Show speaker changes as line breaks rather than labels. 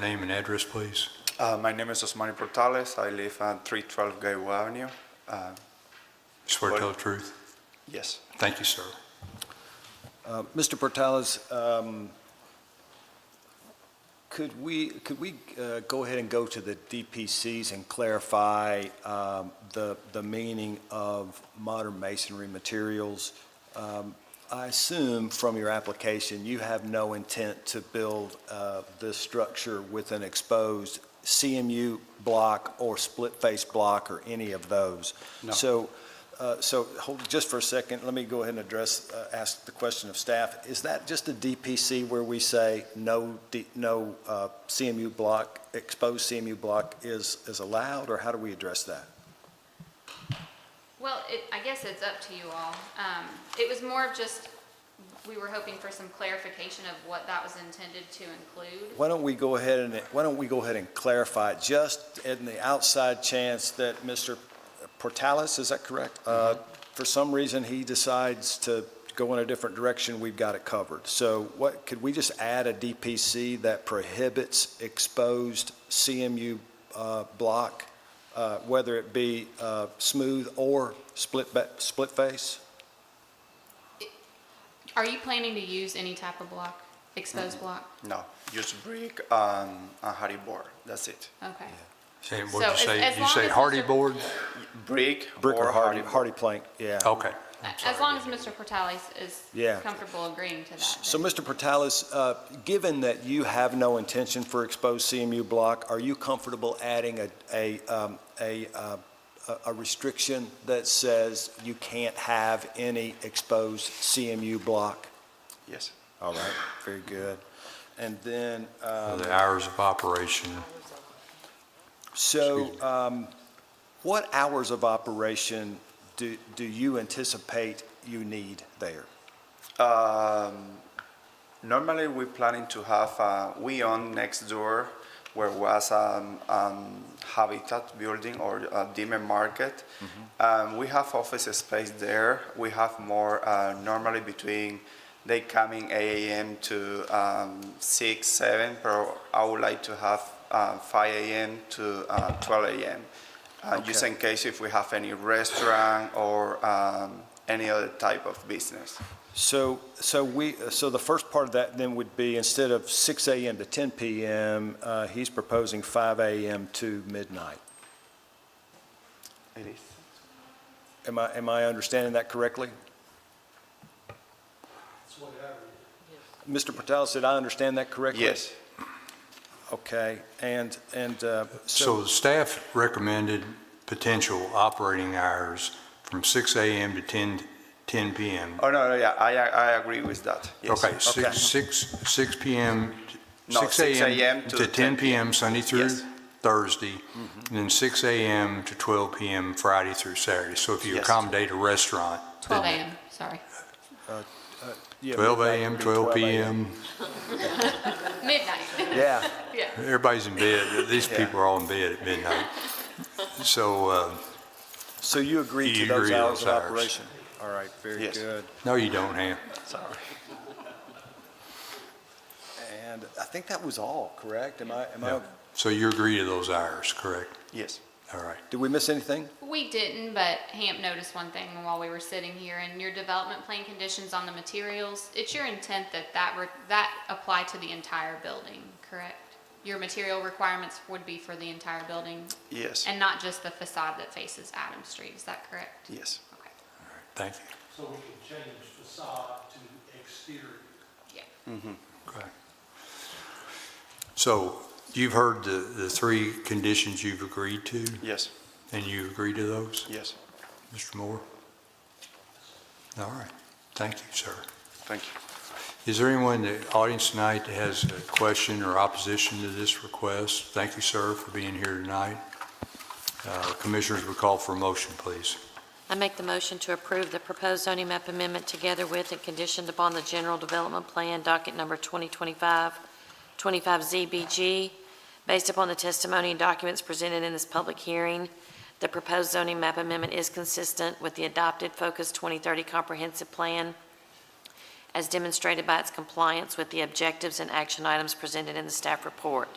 Name and address, please.
Uh, my name is Osmani Portales. I live at 312 Gaywa Avenue. Uh,
Swear to tell the truth.
yes.
Thank you, sir.
Uh, Mr. Portales, um, could we, could we uh, go ahead and go to the DPCs and clarify um, the, the meaning of modern masonry materials? Um, I assume from your application, you have no intent to build uh, this structure with an exposed CMU block or split-face block or any of those.
No.
So uh, So hold, just for a second, let me go ahead and address, uh, ask the question of staff. Is that just a DPC where we say no, D- no uh, CMU block, exposed CMU block is, is allowed, or how do we address that?
Well, it, I guess it's up to you all. Um, it was more of just, we were hoping for some clarification of what that was intended to include.
Why don't we go ahead and, why don't we go ahead and clarify, it, just in the outside chance that Mr. Portales, is that correct? Uh, For some reason, he decides to go in a different direction, we've got it covered. So what, could we just add a DPC that prohibits exposed CMU uh, block, uh, whether it be uh, smooth or split, ba- split face?
Are you planning to use any type of block,
Mm-hmm.
exposed block?
No. Just brick and a hardy board. That's it.
Okay.
Say,
So
what'd you
as- as
say? You
long
say
as
hardy
Mr.
board?
Brick,
Brick or hardy, Oh,
board.
hardy plank, yeah.
Okay.
As long as Mr. Portales is
Yeah.
comfortable agreeing to that.
So,
then-
Mr. Portales, uh, given that you have no intention for exposed CMU block, are you comfortable adding a, a, um, a, uh, a- a restriction that says you can't have any exposed CMU block?
Yes.
All right, very good. And then, um,
The hours of operation.
so,
Excuse
um, what hours of operation do, do you anticipate you need there?
Um, normally, we're planning to have uh, we own next door where was um, um, Habitat building or uh, Dime Market. Um, we have office space there. We have more uh, normally between they coming 8 a.m. to um, 6, 7, but I would like to have uh, 5 a.m. to uh, 12 a.m. Uh, Just
Okay.
in case if we have any restaurant or um, any other type of business.
So, so we, so the first part of that then would be, instead of 6 AM to 10 PM, uh, he's proposing 5 AM to midnight.
It is.
Am I, am I understanding that correctly? Mr. Portales, did I understand that correctly?
Yes.
Okay, and, and uh,
So
so,
the staff recommended potential operating hours from 6 a.m. to 10, 10 p.m.
Oh, no, no, yeah, I, I agree with that. Yes.
Okay,
Okay.
6, 6, 6 p.m. to-
No, 6 a.m.
To 10 p.m. Sunday through
Yes. Mm-hmm.
Thursday, and then 6 a.m. to 12 p.m. Friday through Saturday. So if you
Yes.
accommodate a restaurant. then
12 AM, sorry.
yeah,
12
midnight
a.m.,
would be
12 p.m.
Midnight,
Yeah,
yeah.
Everybody's in bed. These
Yeah.
people are all in bed at midnight. So, uh,
so you agree to
You
those
agree to
hours
those
of
hours.
operation? All right, very
Yes.
good.
no, you don't, Ham.
Sorry.
And I think that was all, correct? Am I, am I,
So you agree to those hours, correct?
Yes.
All right.
did we miss anything?
We didn't, but Hamp noticed one thing while we were sitting here, and your development plan conditions on the materials, it's your intent that that, re- that apply to the entire building, correct? Your material requirements would be for the entire building,
Yes.
and not just the facade that faces Adam Street, is that correct?
yes.
Okay,
Thank you.
So we can change facade to exterior.
yeah.
Okay. So you've heard the, the three conditions you've agreed to,
Yes.
and you agree to those,
Yes.
Mr. Moore? All right. Thank you, sir.
Thank you.
Is there anyone in the audience tonight that has a question or opposition to this request? Thank you, sir, for being here tonight. Uh, Commissioners, we call for a motion, please.
I make the motion to approve the proposed zoning map amendment together with and conditioned upon the general development plan docket number 2025-25 ZBG, based upon the testimony and documents presented in this public hearing. The proposed zoning map amendment is consistent with the adopted Focus 2030 Comprehensive Plan as demonstrated by its compliance with the objectives and action items presented in the staff report.